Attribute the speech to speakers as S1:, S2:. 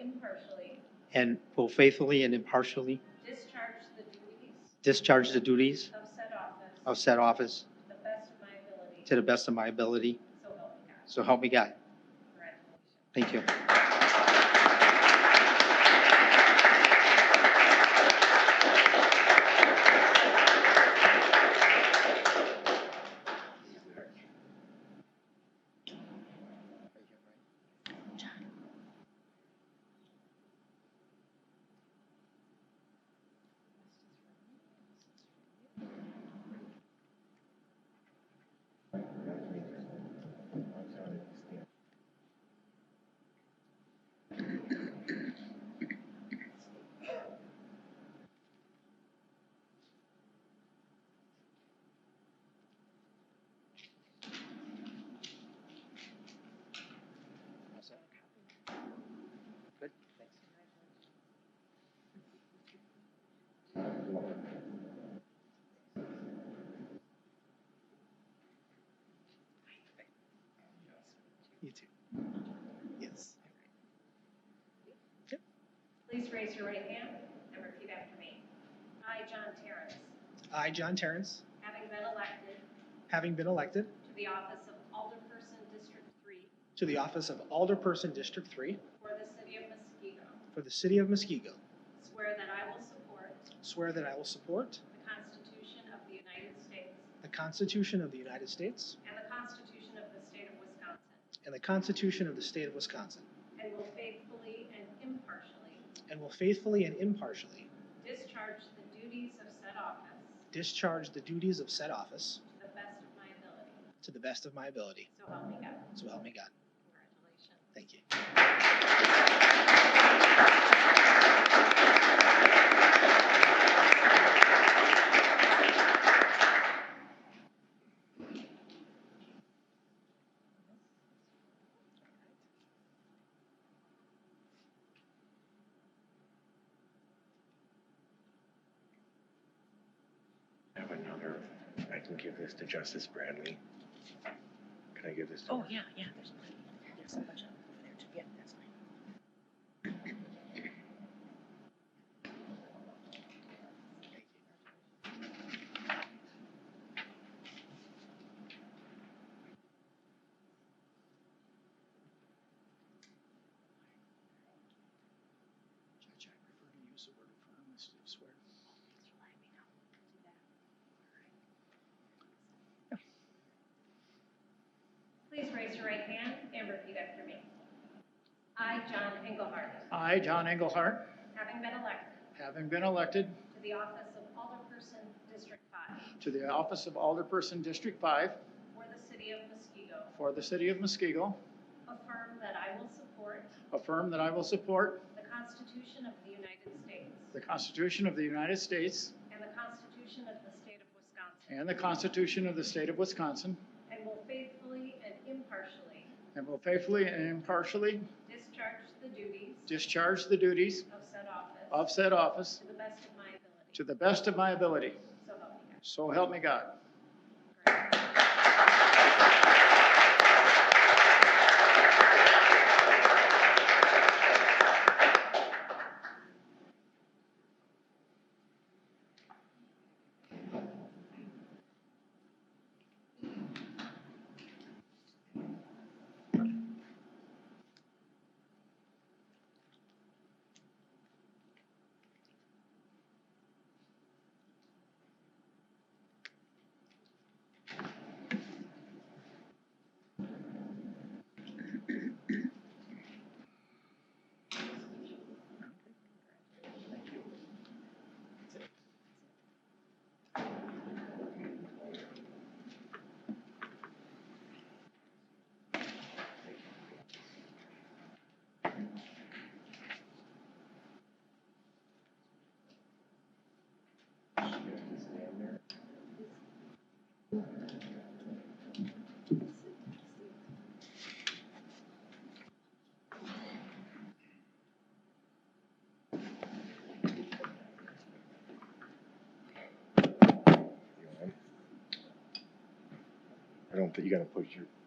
S1: impartially
S2: and will faithfully and impartially
S1: discharge the duties
S2: discharge the duties
S1: of said office
S2: of said office
S1: to the best of my ability.
S2: to the best of my ability.
S1: So help me God.
S2: So help me God.
S1: Congratulations.
S2: Thank you. You too. Yes.
S1: Please raise your right hand and repeat after me. I, John Terrence,
S3: I, John Terrence,
S1: having been elected
S3: having been elected
S1: to the office of Alderperson District Three
S3: to the office of Alderperson District 3
S1: for the city of Muskego,
S3: for the city of Muskego,
S1: swear that I will support
S3: swear that I will support
S1: the Constitution of the United States
S3: the Constitution of the United States
S1: and the Constitution of the State of Wisconsin,
S3: and the Constitution of the state of Wisconsin,
S1: and will faithfully and impartially
S3: and will faithfully and impartially
S1: discharge the duties of said office
S3: discharge the duties of said office
S1: to the best of my ability.
S3: to the best of my ability.
S1: So help me God.
S3: So help me God.
S1: Congratulations.
S3: Thank you.
S4: I have another, I can give this to Justice Bradley. Can I give this to
S5: Oh,
S4: her?
S5: yeah, yeah, there's plenty. There's a bunch of them over there too. Yeah, that's fine.
S3: Judge, I prefer to use the word affirm instead of swear.
S1: Please raise your right hand and repeat after me. I, John Engelhardt,
S6: I, John Engelhardt,
S1: having been elected
S6: having been elected
S1: to the office of Alderperson District Five
S6: to the office of Alderperson District 5
S1: for the city of Muskego,
S6: for the city of Muskego,
S1: affirm that I will support
S6: affirm that I will support
S1: the Constitution of the United States
S6: the Constitution of the United States
S1: and the Constitution of the state of Wisconsin,
S6: and the Constitution of the state of Wisconsin,
S1: and will faithfully and impartially
S6: and will faithfully and impartially
S1: discharge the duties
S6: discharge the duties
S1: of said office
S6: of said office
S1: to the best of my ability.
S6: to the best of my ability.
S1: So help me God.
S6: So help me God.
S4: I don't think, you gotta put your